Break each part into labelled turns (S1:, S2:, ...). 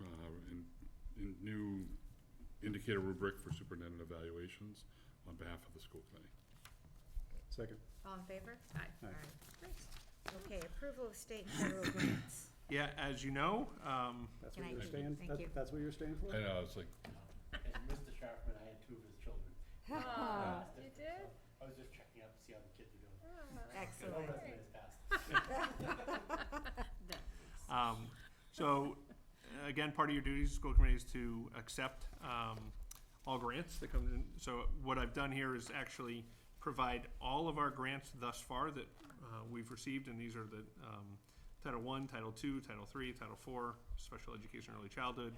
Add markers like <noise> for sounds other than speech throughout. S1: uh, new indicator rubric for superintendent evaluations on behalf of the school committee.
S2: Second.
S3: All in favor?
S4: Aye.
S2: Aye.
S3: Great. Okay, approval of state and federal grants.
S5: Yeah, as you know, um,
S2: That's
S3: Can
S2: what
S3: I
S2: you're
S3: do-
S2: staying,
S3: thank
S2: that-
S3: you.
S2: that's what you're staying for?
S1: I know, it's like,
S6: As Mr. Sharpman, I had two of his children.
S4: Ah,
S6: Passed
S4: you
S6: it,
S4: did? Oh,
S6: so I was just checking up to see how the kids are doing.
S3: Excellent.
S6: Hope that's been passed.
S5: Um, so, uh, again, part of your duties as school committee is to accept, um, all grants that come in. So what I've done here is actually provide all of our grants thus far that, uh, we've received, and these are the, um, Title One, Title Two, Title Three, Title Four, Special Education, Early Childhood,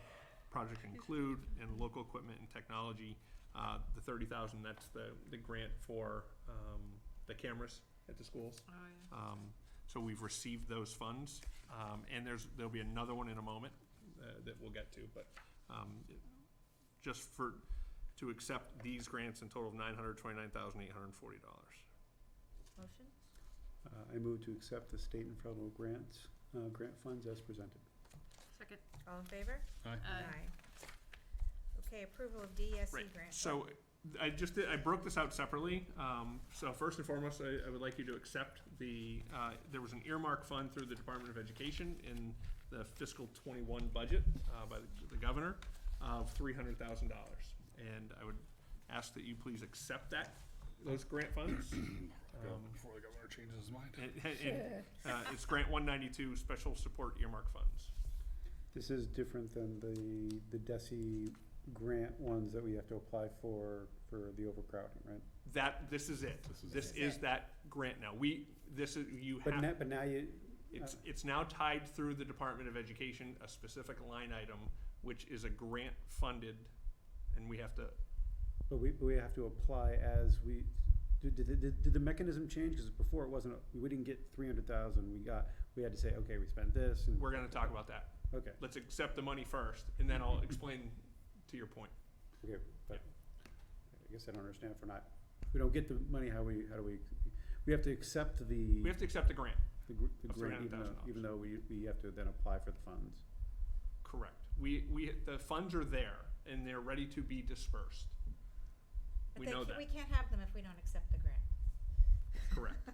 S5: Project Include, and Local Equipment and Technology. Uh, the thirty thousand, that's the, the grant for, um, the cameras at the schools.
S4: Oh, yeah.
S5: Um, so we've received those funds, um, and there's, there'll be another one in a moment, uh, that we'll get to, but, um, it- just for, to accept these grants in total of nine hundred twenty-nine thousand eight hundred and forty dollars.
S3: Motion?
S2: Uh, I move to accept the state and federal grants, uh, grant funds as presented.
S4: Second.
S3: All in favor?
S1: aye,
S4: Aye.
S3: Okay, approval of DESE
S5: Right,
S3: grant.
S5: so I just, did- I broke this out separately. Um, so first and foremost, I, I would like you to accept the, uh, there was an earmark fund through the Department of Education in the fiscal twenty-one budget, uh, by the- the governor, of three hundred thousand dollars. And I would ask that you please accept that, those grant funds.
S1: <clears throat> Go
S5: Um,
S1: before the governor changes his mind.
S5: and- and, uh, it's grant one ninety-two, special support earmark funds.
S2: This is different than the, the DESI grant ones that we have to apply for, for the overcrowding, right?
S5: That, this is it.
S1: This is
S5: This
S3: it.
S5: is that grant now. We, this is, you have.
S2: But now, but now you,
S5: It's,
S2: Uh.
S5: it's now tied through the Department of Education, a specific line item, which is a grant funded, and we have to,
S2: but we, we have to apply as we, did, did, did did the mechanism change? Because before it wasn't, we didn't get three hundred thousand, we got, we had to say, okay, we spent this and,
S5: we're gonna talk about that.
S2: okay,
S5: Let's accept the money first, and then I'll explain to your point.
S2: okay, but I guess I don't understand if we're not, if we don't get the money, how we, how do we, we have to accept the.
S5: We have to accept the grant,
S2: The gr- the
S5: Of
S2: grant, even though,
S5: $300,000.
S2: even though we, we have to then apply for the funds.
S5: correct. We, we, the funds are there, and they're ready to be dispersed.
S3: But
S5: We
S3: they
S5: know
S3: ca-
S5: that,
S3: We can't have them if we don't accept the grant.
S5: correct.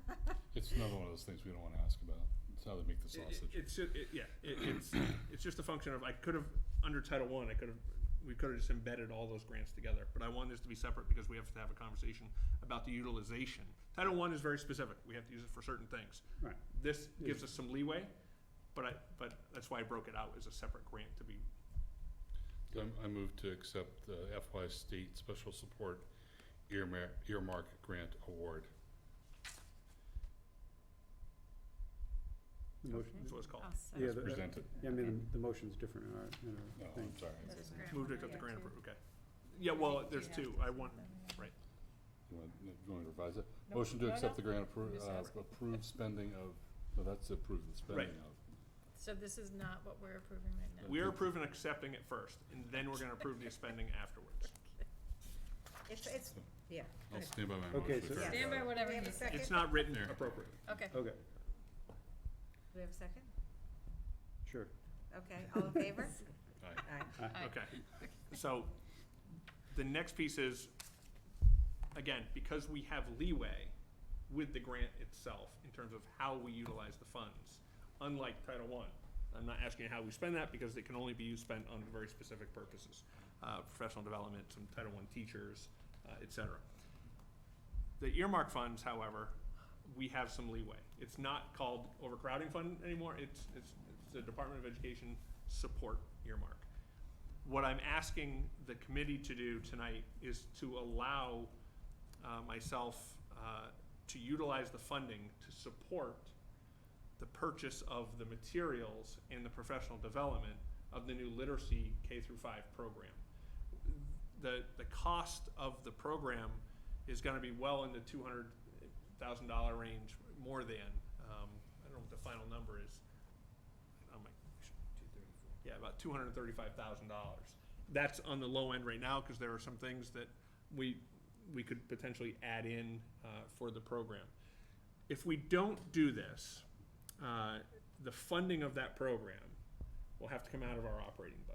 S1: It's another one of those things we don't wanna ask about, it's how they make the
S5: It- it-
S1: sausage.
S5: It's, ju- it, yeah, it, it's, it's just a function of, I could have, under Title One, I could have, we could have just embedded all those grants together, but I want this to be separate because we have to have a conversation about the utilization. Title One is very specific, we have to use it for certain things.
S2: Right.
S5: This gives us some leeway, but I, but that's why I broke it out as a separate grant to be,
S1: So I'm- I move to accept the FY State Special Support earmark, earmark grant award.
S2: The motion,
S5: that's what it's called.
S4: I'll
S2: yeah,
S4: second.
S2: the, uh,
S1: presented.
S2: yeah, I mean, the motion's different in our, in
S1: No,
S2: our thing.
S1: Oh, I'm sorry.
S3: This is grant
S5: Moved
S3: one,
S5: it to the
S3: yeah,
S5: grant,
S3: two.
S5: appro- okay. Yeah, well,
S4: You
S5: there's
S4: have to
S5: two,
S4: do
S5: I want,
S4: something.
S5: right,
S1: You want, you want me to revise it?
S4: No,
S1: Motion to
S4: no,
S1: accept
S4: no.
S1: the grant, appro-
S4: Just ask.
S1: uh, approve spending of, no, that's approve the spending of.
S4: So this is not what we're approving right now?
S5: we're approving accepting it first, and then we're gonna approve the spending afterwards.
S3: <laughs> It's, it's, yeah.
S1: I'll stand by my motion.
S2: Okay, so-
S1: if I
S4: Stand by
S1: forgot it.
S4: whatever
S3: We have
S4: he
S3: a
S4: said.
S3: second?
S5: It's not written
S1: There.
S5: appropriately.
S4: Okay.
S2: Okay,
S3: Do we have a second?
S2: sure.
S3: Okay, all in favor?
S1: Aye.
S3: Aye.
S4: Aye.
S5: Okay, so the next piece is, again, because we have leeway with the grant itself in terms of how we utilize the funds, unlike Title One. I'm not asking how we spend that because it can only be used spent on very specific purposes, uh, professional development, some Title One teachers, uh, et cetera. The earmark funds, however, we have some leeway. It's not called overcrowding fund anymore, it's, it's, it's the Department of Education support earmark. What I'm asking the committee to do tonight is to allow uh, myself uh, to utilize the funding to support the purchase of the materials and the professional development of the new literacy K through five program. The, the cost of the program is gonna be well in the two hundred thousand dollar range, more than, um, I don't know what the final number is. Oh my,
S6: Two thirty-four.
S5: yeah, about two hundred and thirty-five thousand dollars. That's on the low end right now, because there are some things that we, we could potentially add in, uh, for the program. If we don't do this, uh, the funding of that program will have to come out of our operating budget.